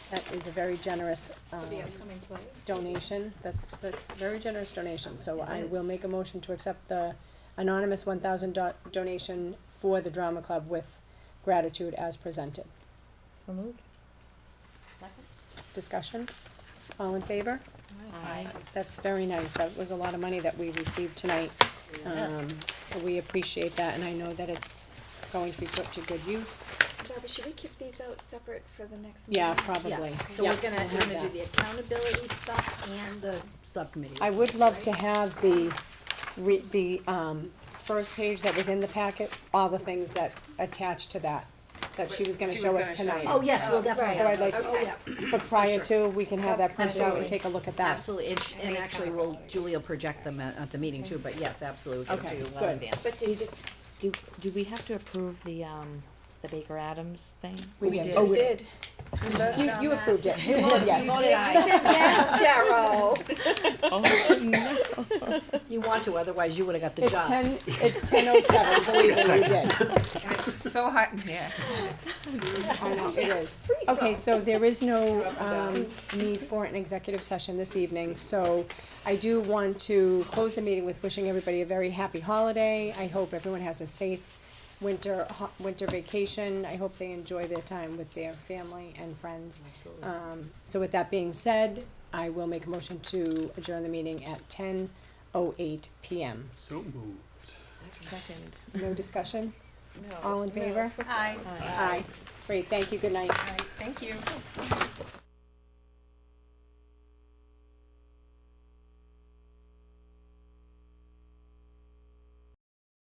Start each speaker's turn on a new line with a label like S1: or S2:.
S1: That is a very generous, um,
S2: The upcoming play.
S1: donation, that's, that's a very generous donation, so
S2: It
S1: I
S2: is.
S1: will make a motion to accept the anonymous one thousand do- donation for the drama club with gratitude as presented.
S3: So moved.
S2: Second?
S1: Discussion, all in favor?
S2: Aye.
S1: That's very nice, that was a lot of money that we received tonight, um, so we appreciate that, and I know that it's going to be put to good use,
S4: So Darby, should we keep these out separate for the next meeting?
S1: yeah, probably,
S2: So we're
S1: Yep,
S2: gonna,
S1: we'll
S2: we're
S1: have
S2: gonna do
S1: that.
S2: the accountability stuff and the subcommittee.
S1: I would love to have the, re, the, um, first page that was in the packet, all the things that attached to that, that she was gonna show us tonight.
S2: Oh, yes, we'll definitely.
S1: So I'd like,
S2: Oh, yeah,
S1: but prior to, we can have that printed out and
S2: Absolutely.
S1: take a look at that.
S2: absolutely, and, sh- and actually, we'll, Julie will project them at, at the meeting too, but yes, absolutely, we'll
S1: Okay,
S2: do well
S1: good.
S2: in advance.
S4: But did just,
S5: Do, do we have to approve the, um, the Baker Adams thing? Oh,
S1: We did.
S4: you did.
S1: You, you approved it, you said yes.
S4: Yes, Cheryl.
S2: You want to, otherwise you would've got the
S1: It's
S2: job.
S1: ten, it's ten oh seven, believe me, we did.
S6: And it's so hot in here.
S1: I know, it is. Okay, so there is no, um, need for an executive session this evening, so I do want to close the meeting with wishing everybody a very happy holiday. I hope everyone has a safe winter, ho- winter vacation. I hope they enjoy their time with their family and friends.
S2: Absolutely.
S1: Um, so with that being said, I will make a motion to adjourn the meeting at ten oh eight PM.
S7: So moved.
S5: Second.
S1: No discussion? All in favor?
S6: Hi.
S1: Aye. Great, thank you, good night.
S6: Thank you.